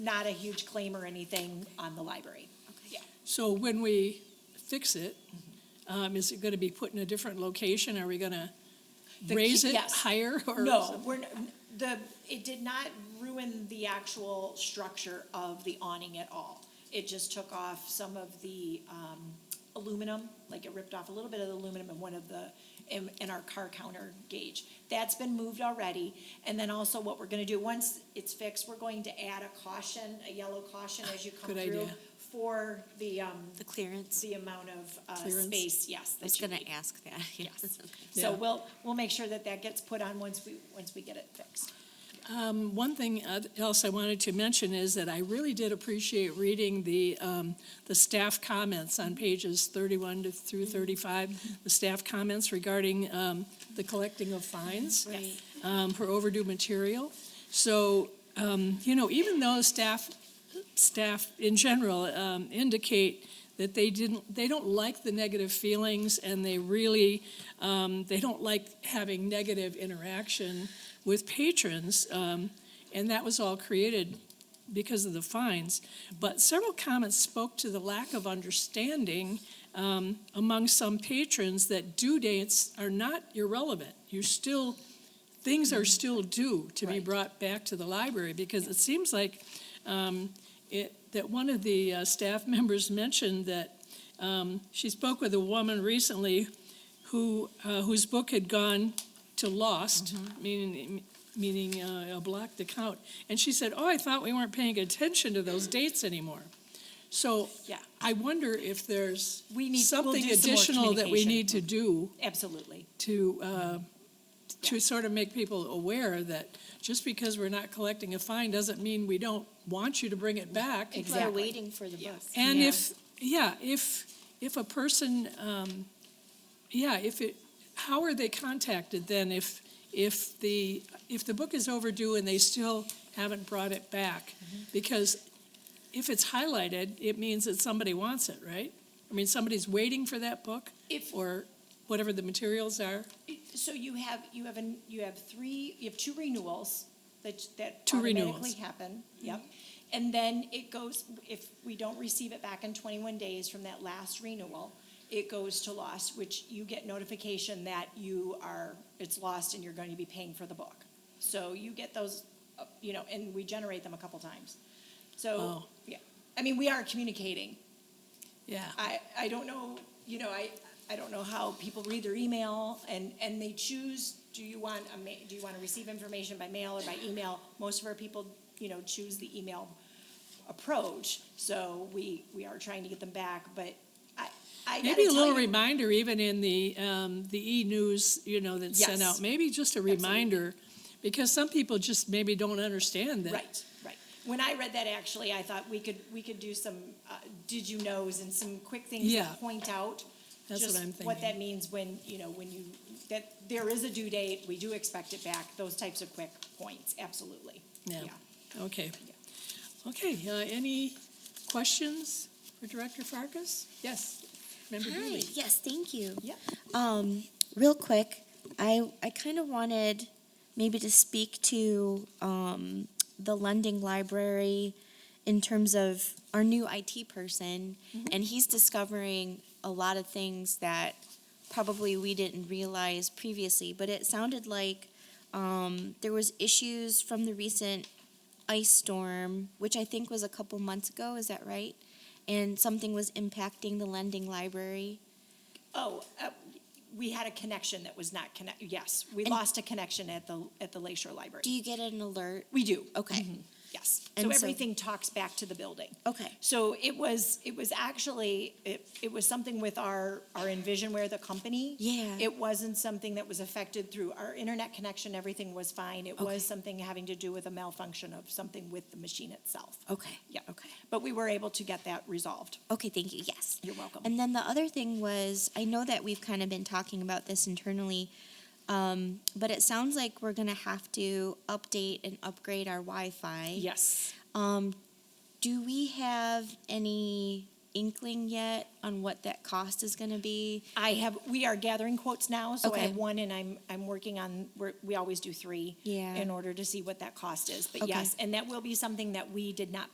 not a huge claim or anything on the library. Yeah. So when we fix it, um, is it gonna be put in a different location? Are we gonna The raise key- it yes. higher? or No, something? we're, n- the, it did not ruin the actual structure of the awning at all. It just took off some of the um, aluminum, like it ripped off a little bit of the aluminum in one of the, in, in our car counter gauge. That's been moved already. And then also what we're gonna do, once it's fixed, we're going to add a caution, a yellow caution as you come Good through idea. for the, um, The clearance? the amount of uh, Clearance? space, yes. I that was you going need. to ask that. Yes. Okay. So Yeah. we'll, we'll make sure that that gets put on once we, once we get it fixed. Um, One thing oth- else I wanted to mention is that I really did appreciate reading the, um, the staff comments on pages 31 to through Mm-hmm. 35, the staff comments regarding um, the collecting of fines Yes. um, for overdue material. So, um, you know, even though staff, staff in general um, indicate that they didn't, they don't like the negative feelings and they really, um, they don't like having negative interaction with patrons, um, and that was all created because of the fines. But several comments spoke to the lack of understanding um, among some patrons that due dates are not irrelevant. You still, things are still due to be Mm-hmm. Right. brought back to the library, because it seems like um, it, that one of the uh, staff members mentioned that um, she spoke with a woman recently who, uh, whose book had gone to lost, Mm-hmm. meaning, meaning uh, a blocked account. And she said, oh, I thought we weren't paying attention to those dates anymore. So Yeah. I wonder if there's We need- we'll something do some more additional that we communication. need to do Absolutely. to, uh, to sort of make people aware that just because we're not collecting a fine doesn't mean we don't want you to bring it back. Ex- People are Exactly. waiting for the Yes. book. And Yeah. if, yeah, if, if a person, um, yeah, if it, how are they contacted then if, if the, if the book is overdue and they still haven't brought it back? Because if it's highlighted, it means that somebody wants it, right? I mean, somebody's waiting for that book? If- Or whatever the materials are? So you have, you have, an you have three, you have two renewals that, that Two renewals. Mm-hmm. automatically happen. Yep. And then it goes, if we don't receive it back in 21 days from that last renewal, it goes to lost, which you get notification that you are, it's lost and you're going to be paying for the book. So you get those, uh, you know, and we generate them a couple times. So, Oh. yeah, I mean, we are communicating. Yeah. I, I don't know, you know, I, I don't know how people read their email and, and they choose, do you want a ma, do you want to receive information by mail or by email? Most of our people, you know, choose the email approach, so we, we are trying to get them back, but I, I gotta Maybe a little tell you- reminder, even in the, um, the e-news, you know, that's sent Yes. out, maybe just a reminder, because some people just maybe don't understand that. Right, right. When I read that, actually, I thought we could, we could do some, uh, did you knows and some quick things to Yeah. point out. That's what just I'm What thinking. that means when, you know, when you, that there is a due date, we do expect it back, those types of quick points, absolutely. Yeah, okay. Okay, uh, any questions for Director Farkas? Yes, Member Hi, Dooley? yes, thank you. Yep. Um, real quick, I, I kind of wanted maybe to speak to, um, the lending library in terms of our new IT person, and he's discovering a lot of things that probably we didn't realize previously, but it sounded like, um, there was issues from the recent ice storm, which I think was a couple months ago, is that right? And something was impacting the lending library. Oh, uh, we had a connection that was not connect, yes, we And- lost a connection at the, at the Lake Shore Library. Do you get an alert? We Mm-hmm. do, Okay. yes. So And so- everything talks back to the building. Okay. So it was, it was actually, it, it was something with our, our Envisionware, the company. Yeah. It wasn't something that was affected through our internet connection, everything was fine. It Okay. was something having to do with a malfunction of something with the machine itself. Okay. Yeah. Oh, Okay. But we were able to get that resolved. Okay, thank you. Yes. You're welcome. And then the other thing was I know that we've kind of been talking about this internally, um, but it sounds like we're going to have to update and upgrade our Wi Fi. Yes. Um, do we have any inkling yet on what that cost is going to be? I have, we are gathering quotes now, so I Okay. have one and I'm, I'm working on, we're, we always do three. Yeah. In order to see what that cost is, but Okay. yes, and that will be something that we did not